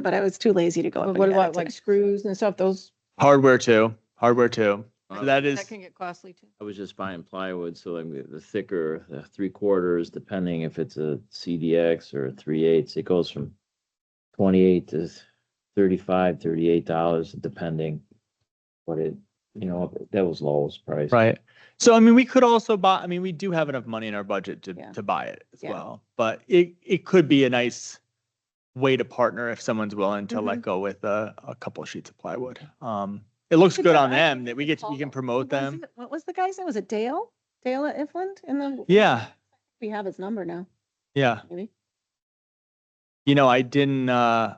but I was too lazy to go up But and What get about it like today. screws and stuff? Those, Hardware too, hardware too. So That is, that can get costly too. I was just buying plywood, so I'm the thicker, the three quarters, depending if it's a CDX or a three eighths, it goes from twenty-eight to thirty-five, thirty-eight dollars, depending. But it, you know, that was Lowell's price. right. So I mean, we could also buy, I mean, we do have enough money in our budget to, Yeah. to buy it as Yeah. well. But it, it could be a nice way to partner if someone's willing to Mm-hmm. let go with a, a couple sheets of plywood. Um, it looks Good good on job. them that we get, to- we can promote What was them. it- What was the guy's name? Was it Dale? Dale at Ifland? And then Yeah, we have his number now, yeah. maybe. You know, I didn't, uh,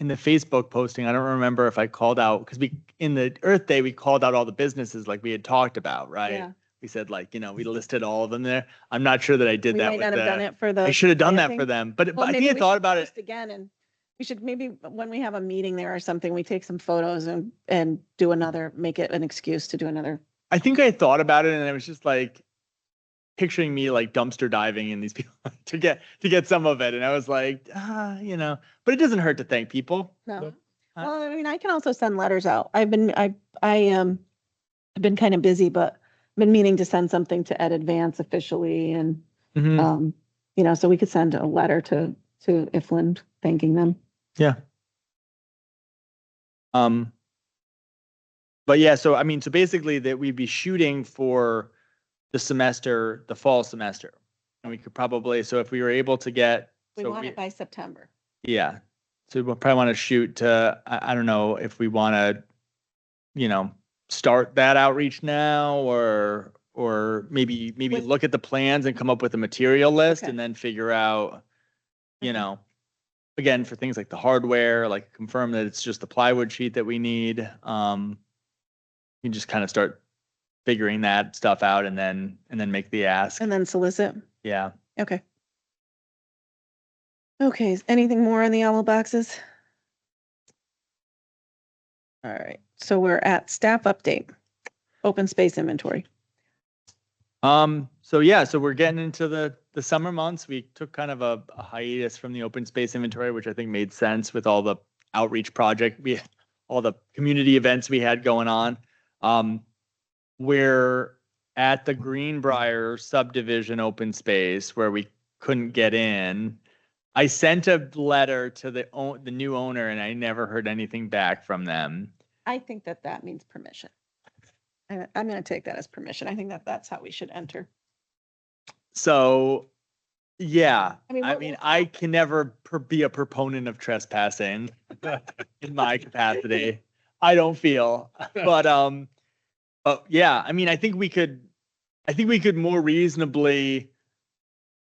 in the Facebook posting, I don't remember if I called out, because we, in the Earth Day, we called out all the businesses like we had talked about, right? Yeah. we said like you know we listed all of them there i'm not sure that i did We that might with not have done the, it for the. i should have done that for planting. them but, Well, but i maybe think i we thought should about it post Again, and we should maybe, when we have a meeting there or something, we take some photos and, and do another, make it an excuse to do another. i think i thought about it and i was just like picturing me like dumpster diving in these people to get to get some of it and i was like ah you know but it doesn't hurt to thank people No. Nope. Uh, Well, I mean, I can also send letters out. I've been, I, I, um, I've been kind of busy, but I've been meaning to send something to Ed Advance officially and, Mhm. um, you know, so we could send a letter to, to Ifland thanking them. yeah um but yeah so i mean so basically that we'd be shooting for the semester the fall semester and we could probably so if we were able to get We so want it by September. Yeah. So we'll probably want to shoot to, I, I don't know if we want to, you know, start that outreach now or, or maybe, maybe When- look at the plans and come up with a material list Okay. and then figure out, you Okay. know, again, for things like the hardware, like confirm that it's just the plywood sheet that we need. Um, you just kind of start figuring that stuff out and then, and then make the ask. And then solicit. Yeah. Okay. Okay, is anything more on the owl boxes? All right, so we're at staff update, open space inventory. Um, so yeah, so we're getting into the, the summer months. We took kind of a, a hiatus from the open space inventory, which I think made sense with all the outreach project, we, all the community events we had going on. Um, we're at the Greenbrier subdivision open space where we couldn't get in. I sent a letter to the, own- the new owner and I never heard anything back from them. I think that that means permission. I- I'm going to take that as permission. I think that that's how we should enter. So, yeah, I mean, I what mean, will- I can never per- be a proponent of trespassing in my capacity. I don't feel, but um, but yeah, I mean, I think we could, I think we could more reasonably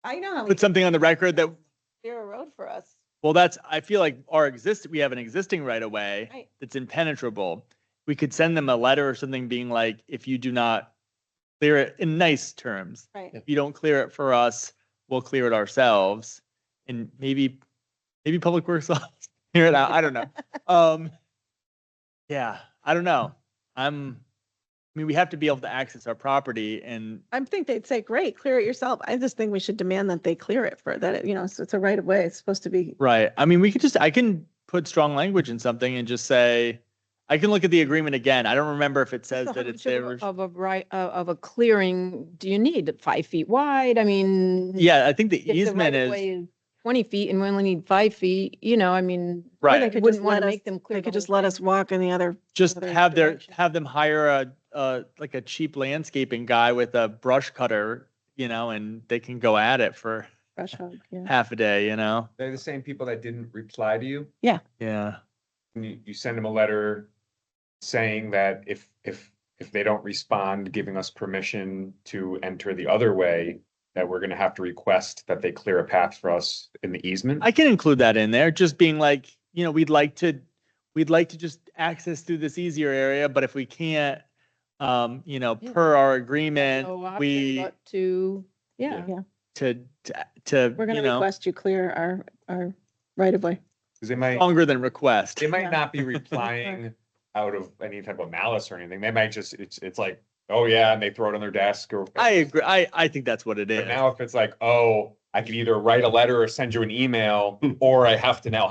I know how we put something on the record that, clear a road for us. well, that's, I feel like our exist, we have an existing right of way Right. that's impenetrable. We could send them a letter or something being like, if you do not clear it in nice terms, Right. if you don't clear it for us, we'll clear it ourselves. And maybe, maybe Public Works will clear it out. I don't know. Um, yeah, I don't know. I'm, I mean, we have to be able to access our property and I think they'd say, great, clear it yourself. I just think we should demand that they clear it for that, it- you know, so it's a right of way. It's supposed to be Right. I mean, we could just, I can put strong language in something and just say, I can look at the agreement again. I don't remember if it says So how that it's much of a- there. Of a right, of of a clearing, do you need five feet wide? I mean. Yeah, I think the if the easement right-of-way is, Twenty feet and we only need five feet, you know, I mean. Right. They could Wouldn't just want let to us- make them clear. They the could just whole let thing. us walk in the other, just another have their, direction. have them hire a, uh, like a cheap landscaping guy with a brush cutter, you know, and they can go at it for brush hog, yeah. half a day, you know? They're the same people that didn't reply to you. Yeah. And you, you send them a letter saying that if, if, if they don't respond, giving us permission to enter the other way, that we're gonna have to request that they clear a path for us in the easement. I can include that in there, just being like, you know, we'd like to, we'd like to just access through this easier area, but if we can't, um, you know, Yeah. per our agreement, No option we, but To, yeah. Yeah. to, to- to, We're you gonna know, request you clear our, our right of way. Cause they might, longer than request. they Yeah. might not be replying out of any type of malice or anything. They might just, it's, it's like, oh yeah, and they throw it on their desk or. I agree. I, I think that's what it is. But now if it's like, oh, I can either write a letter or send you an email, or I have to now